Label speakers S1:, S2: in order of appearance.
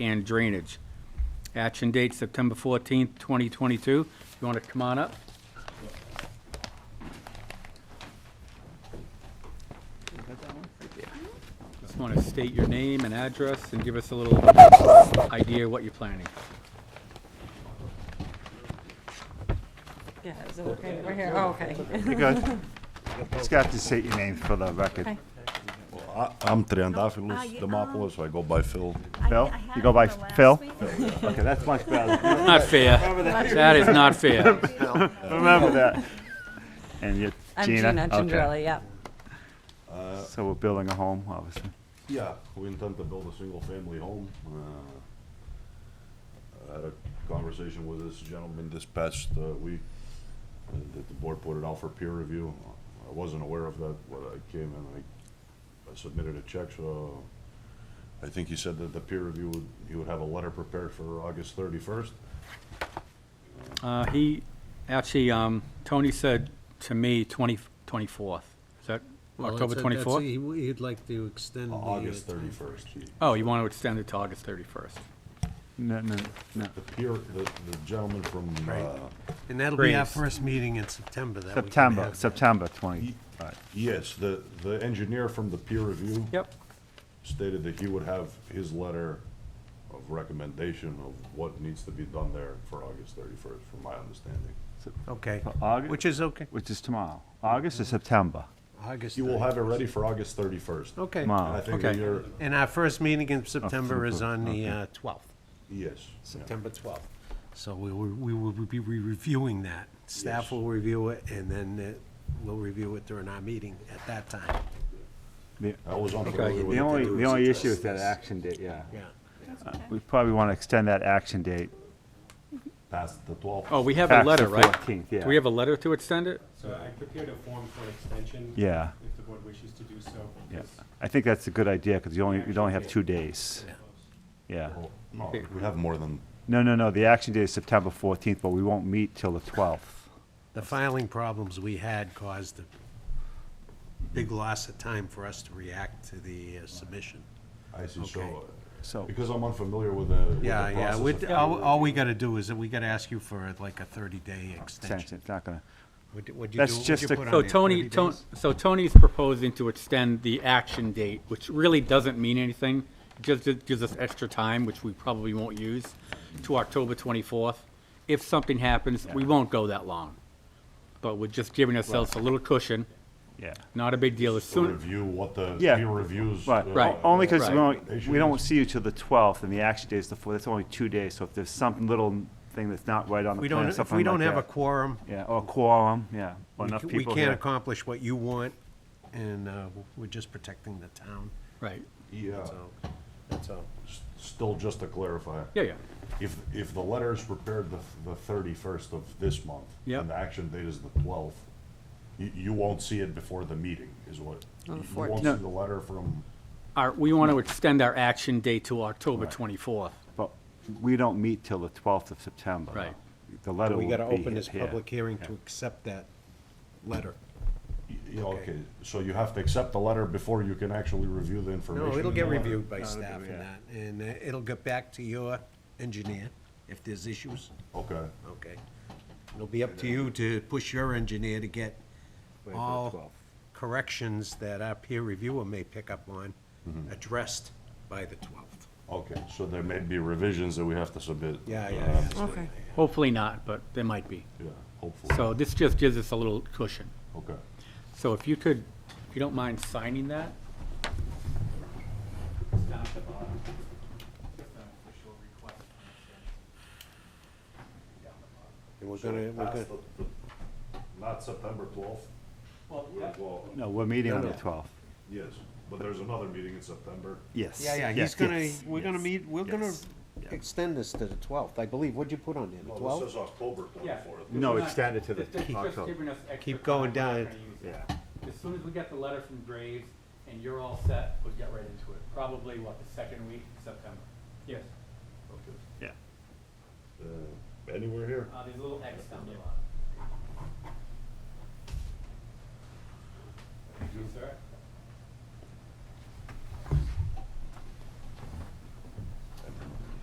S1: and drainage. Action date September 14th, 2022. You want to come on up? Just want to state your name and address and give us a little idea what you're planning.
S2: Yeah, is it okay? We're here, oh, okay.
S3: You good? Just got to say your name for the record.
S2: Okay.
S4: I- I'm Triandafilus Demopoulos, I go by Phil.
S3: Phil? You go by Phil? Okay, that's much better.
S1: Not fair. That is not fair.
S3: Remember that. And you're
S2: I'm
S3: Gina?
S2: Gina
S3: Okay.
S2: Gendrelli, yep.
S3: So we're building a home, obviously.
S4: Yeah, we intend to build a single-family home. Uh, I had a conversation with this gentleman this past uh, week, uh, that the board put it out for peer review. I wasn't aware of that, when I came in, I- I submitted a check, so I think he said that the peer review, would he would have a letter prepared for August 31st.
S1: Uh, He, actually, um, Tony said to me 20 24th. Is that
S5: Well,
S1: October
S5: that's- that's-
S1: 24th?
S5: he w- He'd like to extend the. uh,
S4: August
S5: time.
S4: 31st. he-
S1: Oh, you want to extend it to August 31st?
S3: No, no, no.
S4: The peer, the the gentleman from, uh,
S5: And that'll be our
S1: Great.
S5: first meeting in September that we can
S3: September,
S5: have that.
S3: September 20.
S4: Ye- Yes, the, the engineer from the peer review.
S1: Yep.
S4: Stated that he would have his letter of recommendation of what needs to be done there for August thirty-first, from my understanding.
S5: Okay,
S3: For August?
S5: which is okay.
S3: Which is tomorrow. August or September?
S5: August.
S4: He will have it
S5: 31st.
S4: ready for August thirty-first.
S5: Okay.
S4: And I
S3: Tomorrow.
S4: think that
S1: Okay.
S4: you're,
S5: And our first meeting in September is on the
S3: okay.
S5: uh, 12th,
S4: yes. yeah.
S5: September 12th. So we will, we will be re- reviewing that. Staff
S4: Yes.
S5: will review it, and then uh, we'll review it during our meeting at that time.
S3: The
S4: I was unfamiliar with
S3: the
S4: it.
S3: only, the only issue is that action date, yeah.
S5: Yeah.
S3: We probably want to extend that action date.
S4: Past the twelfth.
S1: Oh, we have a
S3: Past the
S1: letter, right?
S3: 14th, yeah.
S1: Do we have a letter to extend it?
S6: So I prepared a form for extension.
S3: Yeah.
S6: If the board wishes to do so.
S3: Yeah.
S6: because
S3: I think that's a good idea because you only, you only have two days. Yeah.
S4: Oh, We have more than,
S3: No, no, no, the action date is September 14th, but we won't meet till the 12th.
S5: The filing problems we had caused a big loss of time for us to react to the uh, submission.
S4: I see, so,
S5: Okay.
S4: uh,
S3: So,
S4: because I'm unfamiliar with the, with the
S5: Yeah, yeah,
S4: process
S5: we'd-
S4: of-
S5: all, all we gotta do is, that we gotta ask you for uh, like a thirty-day
S3: extension,
S5: extension.
S3: it's not gonna,
S5: Would you do?
S3: That's
S5: what'd
S3: just
S5: you
S3: a-
S5: put on
S1: So
S5: there,
S1: Tony,
S5: 30
S1: Ton-
S5: days?
S1: so Tony's proposing to extend the action date, which really doesn't mean anything. Just it gives us extra time, which we probably won't use, to October 24th. If something happens, we won't go that long. But we're just giving ourselves a little cushion,
S3: yeah.
S1: not a big deal. As
S4: To
S1: soon,
S4: review what the
S3: Yeah.
S4: peer reviews.
S3: Right,
S4: uh,
S1: Right.
S3: O- only because we
S1: Right.
S3: don't, we don't see you till the 12th, and the action day is the 4th, that's only two days, so if there's some little thing that's not right on the
S5: We
S3: plan,
S5: don't,
S3: or something like that.
S5: if we don't have a quorum,
S3: Yeah, or quorum, yeah, or
S5: we
S3: enough
S5: c- we
S3: people
S5: can't
S3: here.
S5: accomplish what you want, and, uh, we're just protecting the town,
S1: right,
S4: Yeah,
S5: so, that's all.
S4: S- still just to clarify.
S1: yeah, yeah,
S4: If, if the letter is prepared the, the thirty-first of this month,
S1: Yep.
S4: and the action date is the twelfth, you, you won't see it before the meeting, is what?
S2: On the
S4: You won't
S2: 14th.
S4: see the letter from,
S1: Our- we want to extend our action date to October 24th.
S3: But we don't meet till the 12th of September.
S1: Right.
S3: The letter will
S5: We
S3: be
S5: gotta open this
S3: here.
S5: public hearing to accept that letter.
S4: y- y-
S5: Okay.
S4: okay, so you have to accept the letter before you can actually review the information.
S5: No, it'll
S4: in
S5: get
S4: the letter.
S5: reviewed by
S3: No, it'll
S5: staff
S3: be-
S5: and
S3: yeah.
S5: that, and uh, it'll get back to your engineer if there's issues.
S4: Okay,
S5: Okay. It'll be up to you to push your engineer to get
S3: Wait for the
S5: all
S3: 12th.
S5: corrections that our peer reviewer may pick up on Mm-hmm. addressed by the 12th.
S4: okay, so there may be revisions that we have to submit.
S5: Yeah,
S4: uh,
S5: yeah, yeah.
S2: Okay.
S1: Hopefully not, but there might be.
S4: Yeah, hopefully,
S1: So this just gives us a little cushion.
S4: okay.
S1: So if you could, if you don't mind signing that?
S6: it's down at the bottom. It's not an official request.
S5: And we're gonna, we're gonna,
S4: Not September twelfth?
S6: Well, yeah,
S3: No, we're meeting on
S5: No,
S3: the
S5: no.
S3: 12th.
S4: Yes, but there's another meeting in September.
S3: Yes.
S5: yeah, yeah, he's
S3: yes,
S5: gonna,
S3: yes,
S5: we're gonna
S3: yes.
S5: meet, we're gonna
S3: yes, yeah.
S5: extend this to the 12th, I believe. What'd you put on there, the
S4: No, this
S5: 12th?
S4: is October
S1: Yeah.
S4: twenty-fourth.
S3: No,
S1: It's not-
S3: extend it to the
S1: it's just- it's just
S3: October.
S1: giving us extra
S5: Keep going
S1: time. We're
S5: down.
S1: not gonna use it.
S3: Yeah.
S1: As soon as we get the letter from Graves and you're all set, we'll get right into it. Probably, what, the second week in September? Yes.
S4: Okay.
S3: Yeah.
S4: Uh, Anywhere here?
S1: Uh, there's a little X down the bottom.